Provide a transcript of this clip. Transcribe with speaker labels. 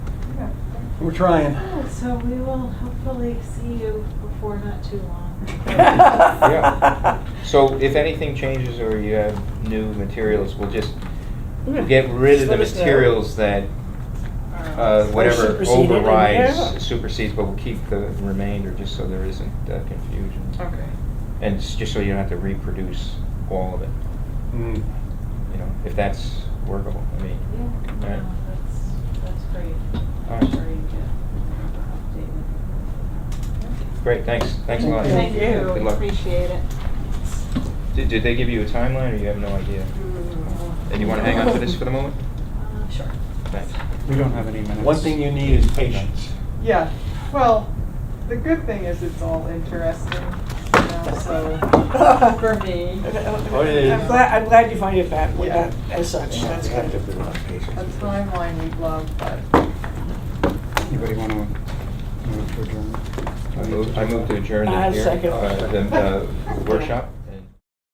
Speaker 1: We're trying.
Speaker 2: Oh, So we will hopefully see you before not too long.
Speaker 3: Yeah. So if anything changes or you have new materials, we'll just we'll get rid of
Speaker 4: Just
Speaker 3: the
Speaker 4: let us know.
Speaker 3: materials that, uh, whatever
Speaker 4: supersede it and- yeah.
Speaker 3: overrides, supersedes, but we'll keep the remainder, just so there isn't uh, confusion.
Speaker 4: Okay.
Speaker 3: And it's just so you don't have to reproduce all of it,
Speaker 1: Mm.
Speaker 3: you know, if that's workable, I mean.
Speaker 2: Yeah,
Speaker 3: Right.
Speaker 2: no, that's, that's great.
Speaker 3: All
Speaker 2: I'm
Speaker 3: right.
Speaker 2: sure you get
Speaker 3: Great, thanks, thanks a lot.
Speaker 2: updated.
Speaker 4: Thank
Speaker 2: Thank
Speaker 4: you.
Speaker 2: you,
Speaker 3: Good luck.
Speaker 2: appreciate it.
Speaker 3: Did, did they give you a timeline, or you have no idea? And you wanna hang on to this for the moment?
Speaker 2: Uh, Sure.
Speaker 3: Thanks.
Speaker 5: We don't have any minutes.
Speaker 1: One thing you need is patience.
Speaker 4: Yeah, well, the good thing is it's all interesting, you know, so, for me,
Speaker 1: Oh, yeah, yeah.
Speaker 4: I'm
Speaker 6: I'm glad, I'm glad you find it that, way,
Speaker 4: Yeah.
Speaker 6: that, as such, that's
Speaker 5: You have to
Speaker 6: good.
Speaker 5: be a lot patient.
Speaker 4: a timeline we'd love, but
Speaker 5: Anybody want to move to adjourn?
Speaker 3: I move, I move to adjourn the
Speaker 6: I
Speaker 3: hear-
Speaker 6: second.
Speaker 3: uh, the, uh, workshop.